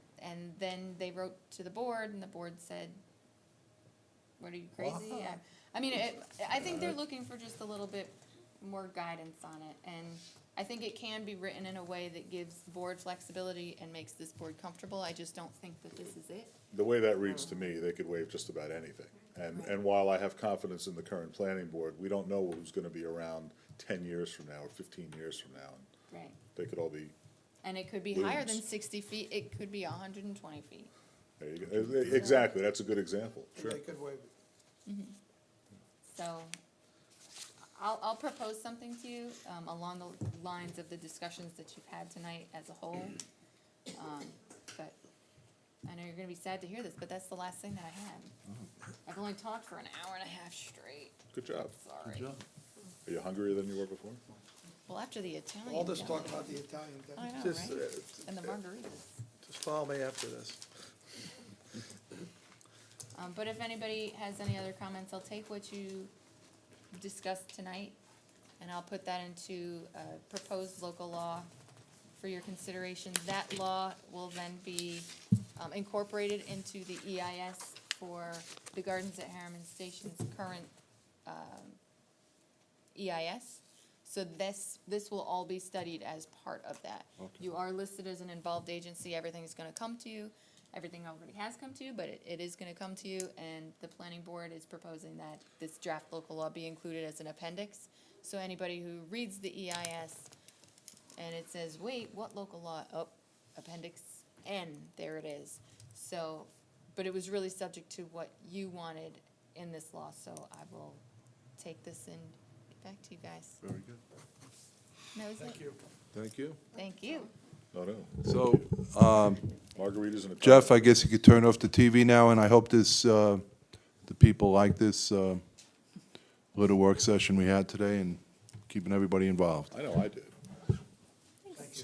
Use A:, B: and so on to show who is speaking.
A: then they wrote to the board and the board said, what are you crazy? I- I mean, it, I think they're looking for just a little bit more guidance on it, and I think it can be written in a way that gives the board flexibility and makes this board comfortable, I just don't think that this is it.
B: The way that reads to me, they could waive just about anything. And, and while I have confidence in the current planning board, we don't know who's gonna be around ten years from now or fifteen years from now. and
A: Right.
B: They could all be,
A: And it could be higher than
B: Looms.
A: sixty feet, it could be hundred and twenty feet.
B: there you go, Eh, eh, exactly, that's a good example.
C: They could waive it.
A: So I'll, I'll propose something to you, um, along the lines of the discussions that you've had tonight as a whole. Um, but I know you're gonna be sad to hear this, but that's the last thing that I had.
B: Mm-hmm.
A: I've only talked for an hour and a half straight,
B: Good job.
A: sorry.
B: Are you hungrier than you were before?
A: Well, after the Italian.
C: All this
A: yeah.
C: talk about the Italian thing.
A: I know,
D: Just, uh,
A: right? And the margaritas.
D: just follow me after this.
A: Um, but if anybody has any other comments, I'll take what you discussed tonight, and I'll put that into a proposed local law for your consideration. That law will then be, um, incorporated into the EIS for the Gardens at Harriman Station's current, um, EIS. E So this, this will all be studied as part of that. You are listed as an involved agency, everything's gonna come to you, everything already has come to you, but it, it is gonna come to you, and the planning board is proposing that this draft local law be included as an appendix. So anybody who reads the E EIS and it says, wait, what local law, oh, appendix N, there it is. So, but it was really subject to what you wanted in this law, so I will take this and get back to you guys.
B: Very good.
A: That was
C: Thank
A: it.
C: you.
E: Thank you.
A: Thank you.
B: No, no,
E: So,
B: margaritas and a.
E: Jeff, I guess you could turn off the TV now, and I hope this, uh, the people like this uh, little work session we had today and keeping everybody involved.
B: I know I did.